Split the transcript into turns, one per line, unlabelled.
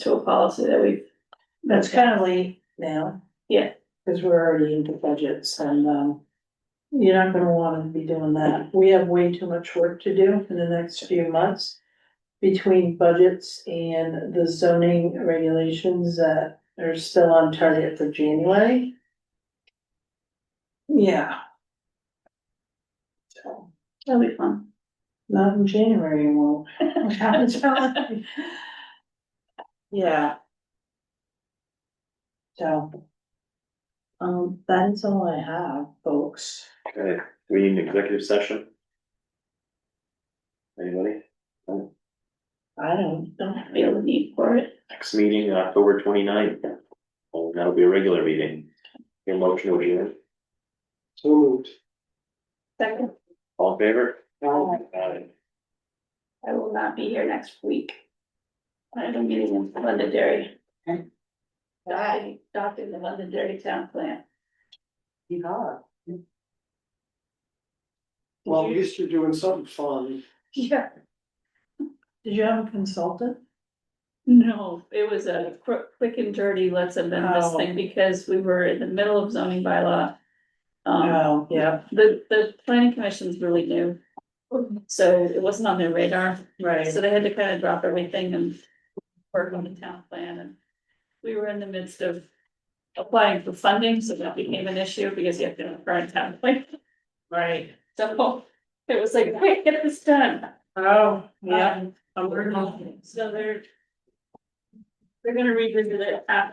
to a policy that we,
That's kind of late now.
Yeah.
Cause we're already into budgets and, um, you're not gonna wanna be doing that. We have way too much work to do in the next few months. Between budgets and the zoning regulations that are still on target for January. Yeah. So,
that'll be fun.
not in January, it won't. I'm telling you. Yeah. So. Um, that is all I have, folks.
Okay, do we need an executive session? Anybody?
I don't,
Don't feel the need for it.
Next meeting, October 29th. ninth Oh, that'll be a regular meeting. Your motion will be in.
So moved.
Second,
All in favor?
Now,
Aye.
I will not be here next week. I have a meeting in Londonderry.
Okay.
I docked in the Londonderry town plant.
you are. Well, at least you're doing something fun.
Yeah.
did you have a consultant?
No, it was a quick, quick and dirty, let's amend this
Oh.
thing because we were in the middle of zoning bylaw. Um,
Oh, yeah,
the, the planning commission's really new,
Oh.
so it wasn't on their radar.
right.
So they had to kind of drop everything and work on the town plan and we were in the midst of applying for funding, so that became an issue because you have to have a current town plan.
Right.
So it was like, wait, get this done.
Oh, yeah.
Um,
I'm working on it.
So they're they're gonna revisit it after